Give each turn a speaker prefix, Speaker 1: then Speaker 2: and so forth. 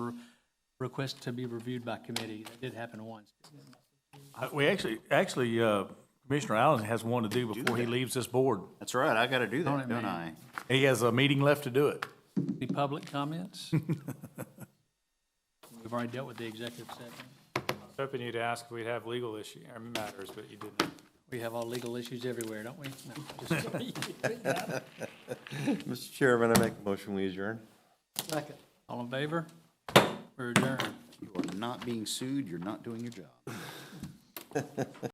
Speaker 1: request to be reviewed by committee. That did happen once.
Speaker 2: Uh, We actually, actually, uh, Commissioner Allen has one to do before he leaves this board.
Speaker 3: That's right, I gotta do
Speaker 1: Don't
Speaker 3: that,
Speaker 1: it,
Speaker 3: don't I?
Speaker 1: man?
Speaker 2: He has a meeting left to do it.
Speaker 1: The public comments? We've already dealt with the executive session.
Speaker 4: was hoping you'd ask if we'd have legal issue, or matters, but you didn't.
Speaker 1: We have all legal issues everywhere, don't we? No, just kidding.
Speaker 5: Mr. Chairman, I make a motion, we adjourn.
Speaker 1: All in favor? We're adjourned.
Speaker 3: You are not being sued, you're not doing your job.